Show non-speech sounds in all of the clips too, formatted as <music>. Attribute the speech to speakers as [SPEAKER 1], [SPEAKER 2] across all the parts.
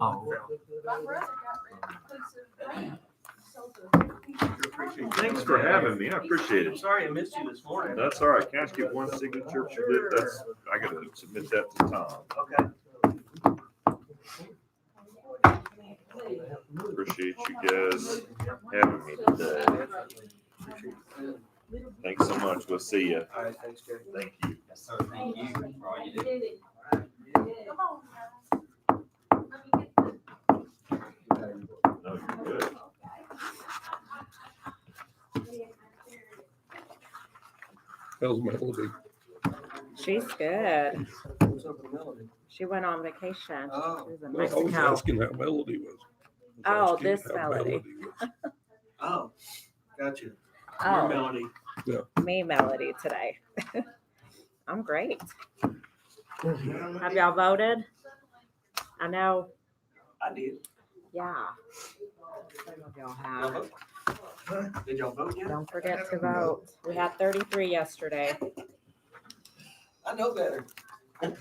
[SPEAKER 1] Oh.
[SPEAKER 2] My brother got rid of the piece of.
[SPEAKER 3] Thanks for having me. I appreciate it.
[SPEAKER 1] Sorry I missed you this morning.
[SPEAKER 3] That's all right. Can I just get one signature? for this? That's, I gotta submit that to Tom.
[SPEAKER 1] Okay.
[SPEAKER 3] Appreciate you guys having me today. Thanks so much. We'll see you.
[SPEAKER 1] All right, thanks, Jerry.
[SPEAKER 3] Thank you.
[SPEAKER 4] Yes, sir. Thank you for all you do.
[SPEAKER 2] Come on, guys. Let me get this.
[SPEAKER 3] No, you're good.
[SPEAKER 5] That was Melody.
[SPEAKER 6] She's good.
[SPEAKER 1] What's up with Melody?
[SPEAKER 6] She went on vacation. She
[SPEAKER 1] Oh,
[SPEAKER 6] was in
[SPEAKER 5] No, I was
[SPEAKER 6] Mexico.
[SPEAKER 5] asking how Melody was. I was
[SPEAKER 6] Oh,
[SPEAKER 5] asking
[SPEAKER 6] this
[SPEAKER 5] how
[SPEAKER 6] Melody.
[SPEAKER 5] was.
[SPEAKER 1] oh, got you. Your
[SPEAKER 6] Oh,
[SPEAKER 1] Melody.
[SPEAKER 6] me, Melody, today. <laughs> I'm great. Have y'all voted? I know.
[SPEAKER 1] I did.
[SPEAKER 6] Yeah. Some of Y'all
[SPEAKER 1] Y'all
[SPEAKER 6] have.
[SPEAKER 1] vote? Did y'all vote yet?
[SPEAKER 6] Don't forget to vote. We had 33 yesterday.
[SPEAKER 1] I know better.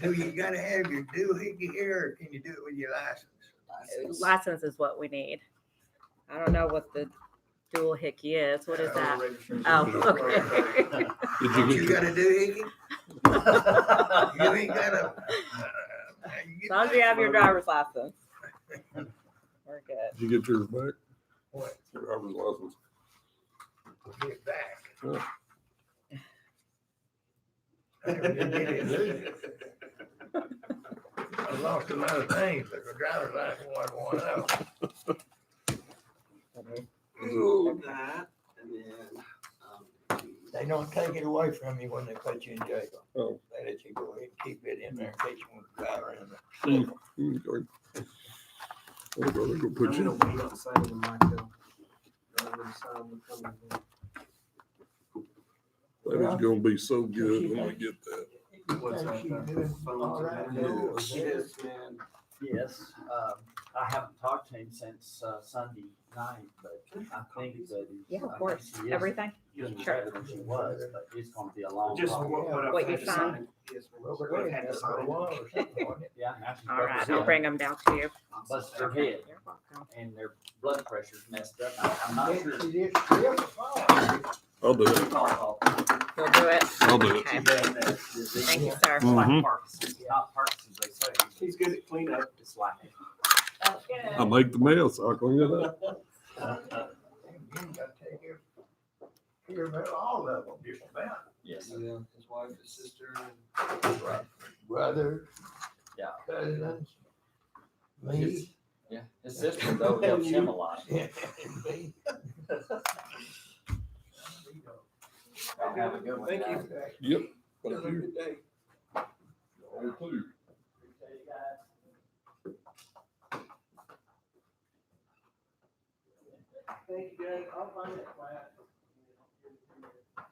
[SPEAKER 7] Do you gotta have your doohickey here, or can you do it with your license?
[SPEAKER 6] License is what we need. I don't know what the dual hickey is. What is that? Oh, <laughs> okay.
[SPEAKER 5] Did
[SPEAKER 7] Don't
[SPEAKER 5] you
[SPEAKER 7] you
[SPEAKER 5] get
[SPEAKER 7] got a doohickey? You ain't got a.
[SPEAKER 6] As long as you have your driver's license. We're good.
[SPEAKER 5] Did you get yours back?
[SPEAKER 7] What?
[SPEAKER 5] Your driver's license.
[SPEAKER 7] Get back.
[SPEAKER 5] Yeah.
[SPEAKER 7] I never did get it losing. I lost a lot of things, but the driver's license wasn't one of them.
[SPEAKER 1] Ooh, that, and then, um,
[SPEAKER 7] They don't take it away from you when they put you in jail.
[SPEAKER 5] Oh.
[SPEAKER 7] They let you go ahead and keep it in there in case you want to drive around.
[SPEAKER 5] Mm, go ahead. Oh, brother, go
[SPEAKER 1] I'm
[SPEAKER 5] put
[SPEAKER 1] gonna
[SPEAKER 5] you.
[SPEAKER 1] wait outside of the mic though. I'm gonna decide when I'm coming
[SPEAKER 5] That is gonna be so good when we get that.
[SPEAKER 1] in. What's up, uh, phones and everything?
[SPEAKER 5] Yes.
[SPEAKER 1] Yes, man.
[SPEAKER 4] Yes, um, I haven't talked to him since, uh, Sunday night, but I think that. he-
[SPEAKER 6] Yeah,
[SPEAKER 4] I
[SPEAKER 6] of
[SPEAKER 4] think
[SPEAKER 6] course.
[SPEAKER 4] she is
[SPEAKER 6] Everything.
[SPEAKER 4] doing
[SPEAKER 6] Sure.
[SPEAKER 4] better than she was, but it's gonna be a long.
[SPEAKER 1] Just
[SPEAKER 4] haul.
[SPEAKER 1] what, what I've
[SPEAKER 6] What
[SPEAKER 1] had
[SPEAKER 6] you
[SPEAKER 1] to sign. Yes,
[SPEAKER 7] Robert
[SPEAKER 1] What I've
[SPEAKER 7] Lee
[SPEAKER 1] had to
[SPEAKER 7] had a
[SPEAKER 1] sign.
[SPEAKER 7] law or something, wasn't it?
[SPEAKER 4] Yeah, now she's
[SPEAKER 6] All right, I'll
[SPEAKER 4] representing.
[SPEAKER 6] bring them down to you.
[SPEAKER 4] Busted her head
[SPEAKER 6] You're welcome.
[SPEAKER 4] and their blood pressure's messed up. I- I'm not sure.
[SPEAKER 7] She did- she did fine.
[SPEAKER 5] I'll do it.
[SPEAKER 4] It's all fault.
[SPEAKER 6] You'll do it.
[SPEAKER 5] I'll do it.
[SPEAKER 6] Okay. Thank
[SPEAKER 4] Thank
[SPEAKER 6] you, sir.
[SPEAKER 5] Mhm.
[SPEAKER 4] Like Parkinson's, not Parkinson's, they say.
[SPEAKER 1] He's good at cleanup.
[SPEAKER 4] It's like. it.
[SPEAKER 5] I make the mess. I'll clean it up.
[SPEAKER 4] uh,
[SPEAKER 7] And You got to take care, care of all of them, just about.
[SPEAKER 4] Yes.
[SPEAKER 1] Yeah, his wife, his sister,
[SPEAKER 7] <laughs>
[SPEAKER 1] and
[SPEAKER 7] Brother.
[SPEAKER 4] Yeah.
[SPEAKER 7] Cousins.
[SPEAKER 4] His-
[SPEAKER 7] Me.
[SPEAKER 4] Yeah, his sister though helps him a lot.
[SPEAKER 7] Me.
[SPEAKER 4] Y'all have a good one.
[SPEAKER 1] Thank you.
[SPEAKER 5] Yep.
[SPEAKER 1] have a good day. Thank you, guys. I'll find it.